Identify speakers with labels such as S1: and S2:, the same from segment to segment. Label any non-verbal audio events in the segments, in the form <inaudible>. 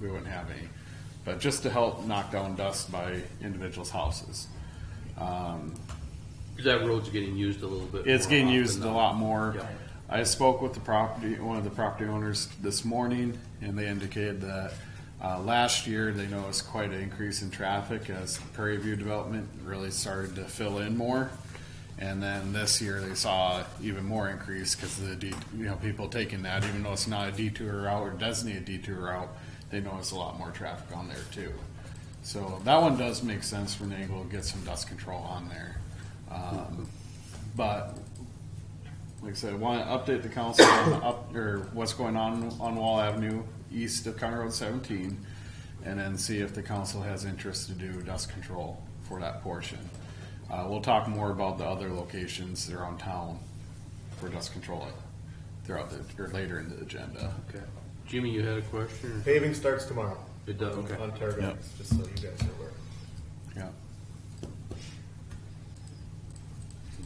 S1: we wouldn't have any. But just to help knock down dust by individuals' houses. Um,
S2: That road's getting used a little bit.
S1: It's
S2: more
S1: getting
S2: often
S1: used a
S2: now.
S1: lot more.
S2: Yeah.
S1: I spoke with the property, one of the property owners this morning, and they indicated that uh, last year they noticed quite an increase in traffic as Prairie View Development really started to fill in more. And then this year they saw even more increase because the det- you know people taking that, even though it's not a detour route or doesn't need a detour route, they noticed a lot more traffic on there too. So that one does make sense when they will get some dust control on there. Um, but like I said, I want to update the council on the up, or what's going on on Wall Avenue east of County Road seventeen. And then see if the council has interest to do dust control for that portion. Uh, we'll talk more about the other locations around town for dust control throughout the, or later in the agenda.
S2: Okay. Jimmy, you had a question? or-
S3: Paving starts tomorrow
S2: It does, okay.
S3: on Targa,
S1: Yep.
S3: just so you guys are aware.
S1: Yeah.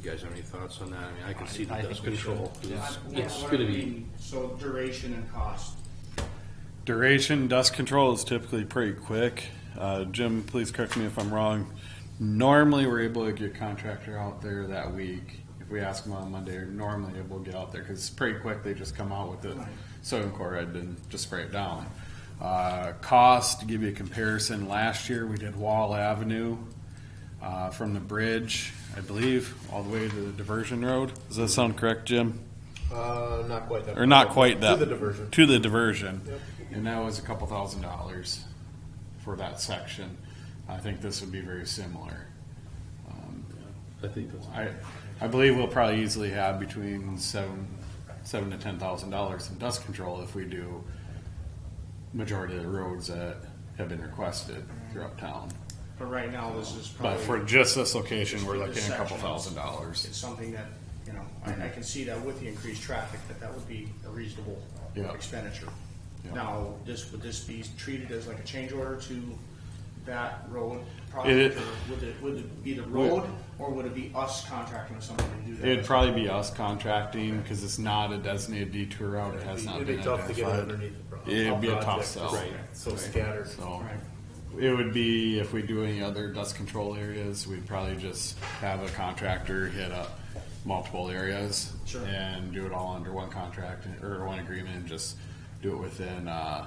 S2: You guys have any thoughts on that? I mean, I can see the
S1: I
S2: dust
S1: think we
S2: control.
S4: Uh,
S2: is-
S4: what-
S2: It's
S4: what
S2: gonna
S4: I
S2: be,
S4: mean, So duration and cost.
S1: Duration dust control is typically pretty quick. Uh, Jim, please correct me if I'm wrong. Normally, we're able to get contractor out there that week. If we ask them on Monday, they're normally able to get out there because it's pretty quick. They just come out with the sodium chloride and just spray it down. Uh, cost, to give you a comparison, last year we did Wall Avenue uh, from the bridge, I believe, all the way to the diversion road. Does that sound correct, Jim?
S3: Uh, not quite that.
S1: Or not quite that.
S3: To the diversion.
S1: To the diversion.
S3: Yep.
S1: And that was a couple thousand dollars for that section. I think this would be very similar. Um,
S2: I think that's.
S1: I, I believe we'll probably easily have between seven, seven to ten thousand dollars in dust control if we do majority of the roads that have been requested throughout town.
S4: But right now, this is
S1: But
S4: probably.
S1: for just this location,
S4: Just
S1: we're
S4: for
S1: looking
S4: this
S1: at a couple
S4: section.
S1: thousand dollars.
S4: It's something that, you know, I, I can see that with the increased traffic, that that would be a reasonable
S1: Yeah.
S4: expenditure.
S1: Yeah.
S4: Now, this, would this be treated as like a change order to that road
S1: It-
S4: project? or Would it, would it be the road, or would it be us contracting with somebody to do that?
S1: It'd probably be us contracting, cause it's not a designated detour route, it has not
S3: It'd
S1: been
S3: be tough to get it
S1: identified.
S3: underneath the problem.
S1: It'd be a tough sell.
S3: Right, so scattered.
S1: So
S4: Right.
S1: it would be if we do any other dust control areas, we'd probably just have a contractor hit up multiple areas
S4: Sure.
S1: and do it all under one contract and- or one agreement and just do it within, uh,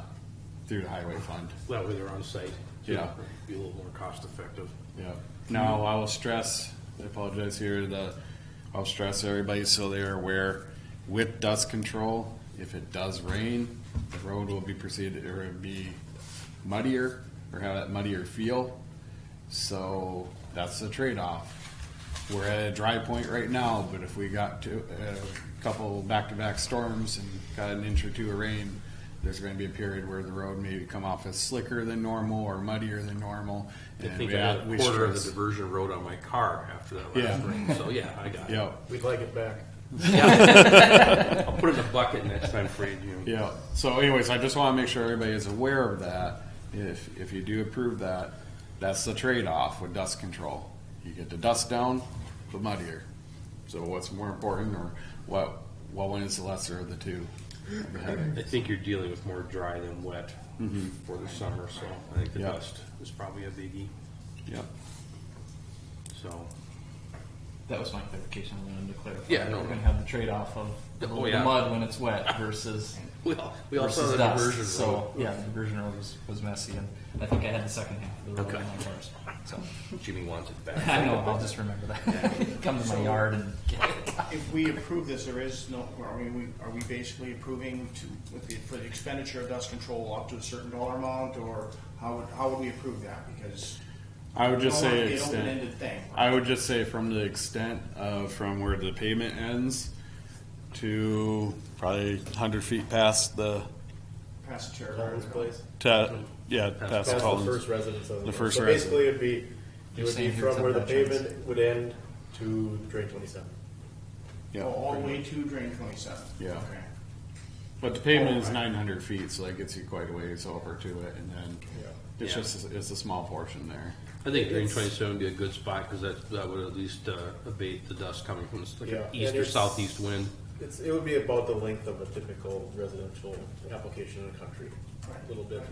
S1: through the highway fund.
S2: That way they're on site.
S1: Yeah.
S2: Be a little more cost effective.
S1: Yep. Now, I will stress, I apologize here, the, I'll stress everybody so they are aware, with dust control, if it does rain, the road will be preceded, or it'll be muddier, or have that muddier feel. So that's the trade-off. We're at a dry point right now, but if we got to, a couple back-to-back storms and got an inch or two of rain, there's gonna be a period where the road maybe come off as slicker than normal or muddier than normal.
S2: I
S1: and
S2: think
S1: we
S2: I
S1: have-
S2: had
S1: we
S2: a quarter of the
S1: stress-
S2: diversion road on my car after that last
S1: Yeah.
S2: rain, so yeah, I got it.
S1: Yeah,
S3: We'd like it back.
S2: I'll put it in a bucket next time for you, Jimmy.
S1: yeah. So anyways, I just want to make sure everybody is aware of that. If, if you do approve that, that's the trade-off with dust control. You get the dust down, but muddier. So what's more important or what, what one is the lesser of the two? of the headache?
S2: I think you're dealing with more dry than wet for the summer, so I think the
S1: Mm-hmm. Yeah.
S2: dust is probably a biggie,
S1: Yep.
S2: so.
S5: That was my clarification. I wanted to clarify.
S2: Yeah, no.
S5: we're gonna have the trade-off of
S2: Oh,
S5: the little
S2: yeah.
S5: mud when it's wet versus
S2: We all, we all saw
S5: versus
S2: the
S5: dust.
S2: diversion
S5: so
S2: road.
S5: yeah, the diversion road was, was messy, and I think I had the second half of the road
S2: Okay.
S5: in my cars. <laughs> So
S2: Jimmy wants it
S5: I
S2: back.
S5: know I'll just remember that. <laughs> Come to my yard and get it.
S4: If we approve this, there is no, are we, we- are we basically approving to, with the, for the expenditure of dust control up to a certain dollar amount, or how would, how would we approve that? Because.
S1: I would just
S4: I don't
S1: say
S4: want it to be an
S1: extend.
S4: Open-ended thing.
S1: I would just say from the extent of from where the pavement ends to probably hundred feet past the,
S4: Pass the chair.
S3: Collins Place.
S1: to, yeah, past
S3: That's the
S1: Collins.
S3: first residence of the.
S1: The
S3: road.
S1: first
S3: So Basically, it'd be, it
S5: You're
S3: would be
S5: saying here's
S3: from where the
S5: up that choice.
S3: pavement would end to drain twenty-seven.
S1: Yeah.
S4: Oh, All the way to drain twenty-seven.
S1: Yeah.
S4: Okay.
S1: But the pavement is
S4: Alright.
S1: nine hundred feet, so that gets you quite a ways over to it, and then
S3: Yeah.
S1: it's
S2: Yeah.
S1: just, it's a small portion there.
S2: I think Green 27 would be a good spot because that, that would at least uh, abate the dust coming from this, like
S3: Yeah, and
S2: east or
S3: it's-
S2: southeast wind.
S3: It's, it would be about the length of a typical residential application in the country, a little bit